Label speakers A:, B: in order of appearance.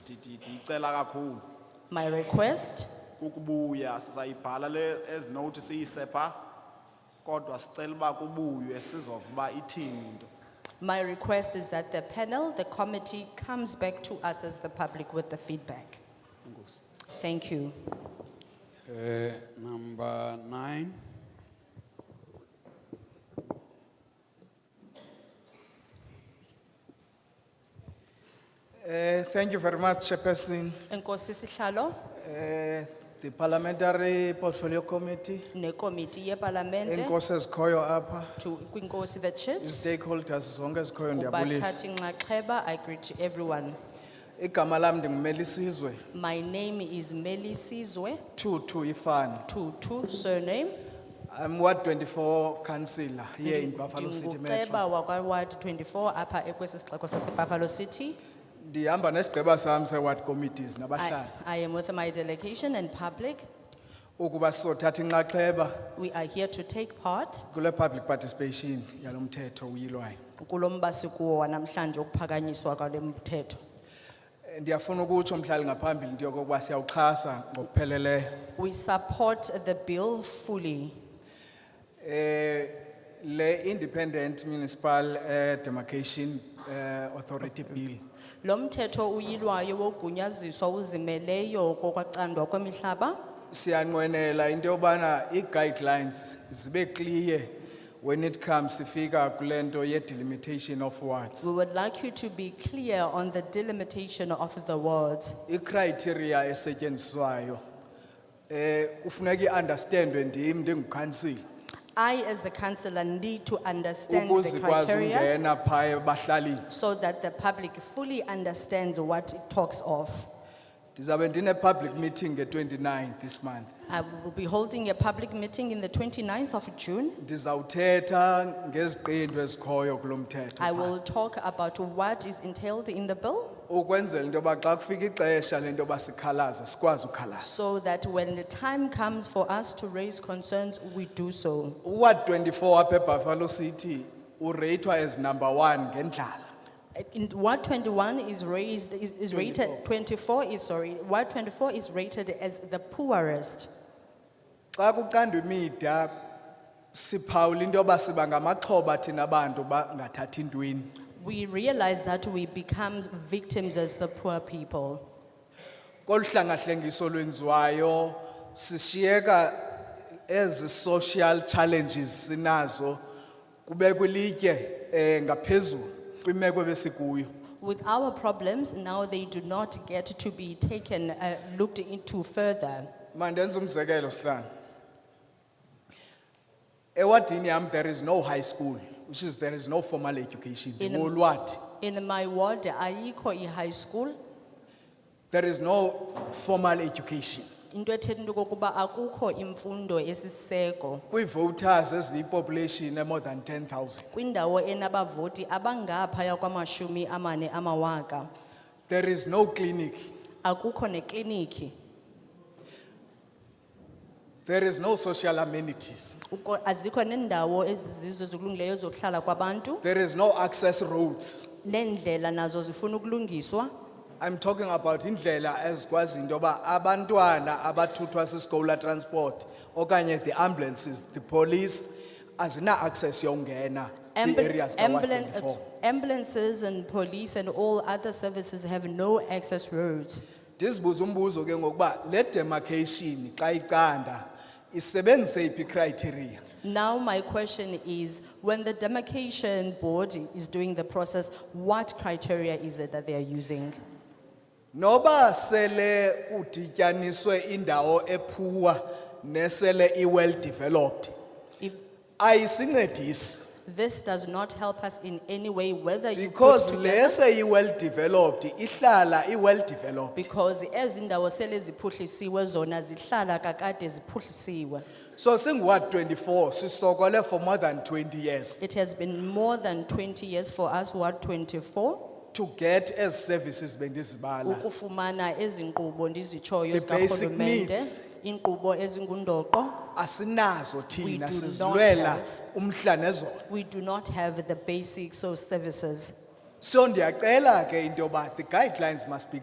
A: di- di- ndiyicela kakhulu
B: My request
A: ukubuya sizayibhala le as note siyisepha kodwa sicela uba kubuywe sizova uba ithini into
B: My request is that the panel, the committee comes back to us as the public with the feedback. Thank you.
C: Uh, number nine,
D: Uh, thank you very much, Chairperson.
B: Nkosi sihlalo
D: Uh, the Parliamentary Portfolio Committee,
B: nekomiti yepalamente
D: enkosi ezikhoyo apha,
B: to kwinkosi the chiefs.
D: stakeholders zonke ezikhoyo ndiyabulisa.
B: Kubathathi nxaxheba, I greet everyone.
D: Igama lam ndingumelisizwe,
B: My name is Meli Sizwe,
D: Tutu Ifani.
B: Tutu surname.
D: I'm Ward twenty-four councillor here in Buffalo City Metro.
B: Ndinguceba wakwa Ward twenty-four apha ekwesi sixeko sase Buffalo City.
D: Ndihamba nesigqeba sam se-ward committees
B: I
D: nabahlali,
B: I am with my delegation and public.
D: ukuba sizothatha inxaxheba
B: We are here to take part
D: kule public participation yalo mthetho uyilwayo.
B: kulomba sikuwo wanamhlanje ukuphakanyiswa kwale mthetho
D: Eh, Ndiyafuna ukutsho mhlali ngaphambili into yokokuba siyawuxhasa ngokupheleleyo.
B: we support the bill fully
D: Eh, le Independent Municipal eh, Demarcation eh, Authority Bill.
B: lo mthetho uyilwayo wogunyaziswa uzimeleyo kokwacandwa kwemihlaba
D: Siyanwenela into yobana i-guidelines zibe clear when it comes ifika kulento ye delimitation of
B: we
D: wards.
B: would like you to be clear on the delimitation of the words
D: I-criteria esetyenziswayo eh kufuneki understandwe ndim ndingukansil.
B: i as the councillor need to understand the
D: Ukuzi kwazi
B: criteria
D: ungena phaya bahlali.
B: so that the public fully understands what it talks of
D: Ndizabe ndine public meeting nge-29 this month.
B: i will be holding a public meeting in the 29th of june
D: Ndizawuthetha ngeziqendu ezikhoyo kulo mthetho.
B: I
D: phaa.
B: will talk about what is entailed in the bill
D: ukwenzela into yoba xa kufika ixesha lento yoba sikhalaze sikwazi ukhalaza
B: so that when the time comes for us to raise concerns, we do so.
D: uward twenty-four apha ebuffalo city ureyithwa as number one ngendlala
B: In Ward twenty-one is raised, is is rated, twenty-four is, sorry, Ward twenty-four is rated as the poorest.
D: xa kucandwa imida siphawula into yoba siba ngamaxhoba thina bantu bangathathi ntweni
B: We realize that we become victims as the poor people.
D: kolu hlangahlengiso lwenziwayo sishiyeka ezi social challenges sinazo kube kwilitye um ngaphezulu kwimeko ebesikuyo
B: With our problems, now they do not get to be taken, uh, looked into further.
D: Mandenza umzekelo Sihlan. Ewadini yam there is no high school, which is there is no formal education.
B: In-
D: Ngolwat.
B: In my ward, ayikho i-high school,
D: There is no formal education.
B: into ethetha into okokuba akukho imfundo esiseko
D: Kwi voters eziyi population eh, more than 10,000.
B: kwindawo enabavoti abangaphaya kwamashumi amane amawaka
D: There is no clinic.
B: akukho nekliniki
D: There is no social amenities.
B: Uko- azikho nendawo ezizizo zikulungileyo zokuhlala kwabantu
D: There is no access roads.
B: neendlela nazo zifuna ukulungiswa
D: I'm talking about indlela ezikwazi indoba abantwana abathuthwa siskola transport okanye the ambulances, the police azina access yongena
B: Ambul-
D: the areas kawa
B: ambulan-
D: twenty-four.
B: ambulances and police and all other services have no access roads
D: Ndisibuza umbuzo ke ngokuba le demarcation xa iqanda isebenzise iphi criteria?
B: now my question is when the demarcation board is doing the process what criteria is it that they are using
D: Noba sele kudityaniswe indawo ephuwa nesele i well developed.
B: If-
D: Ayisincedisi
B: This does not help us in any way whether you. put
D: because
B: together-
D: lese i well developed ihlala i well developed.
B: Because ezindawo sele ziphuhlisiwe zona zihlala kakade ziphuhlisiwe.
D: So since Ward twenty-four, sisokole for more than twenty years
B: It has been more than twenty years for us, Ward twenty-four,
D: to get as services bendisbala.
B: ukufumana ezinkqubo ndizitshoyo
D: The basic
B: zikarhulumente.
D: needs.
B: Inkqubo ezingundoqo.
D: Asinazo
B: We do
D: tina
B: not
D: sizlwela
B: have.
D: umhlanezo.
B: We do not have the basics of services.
D: So ndiakela ke indoba, the guidelines must be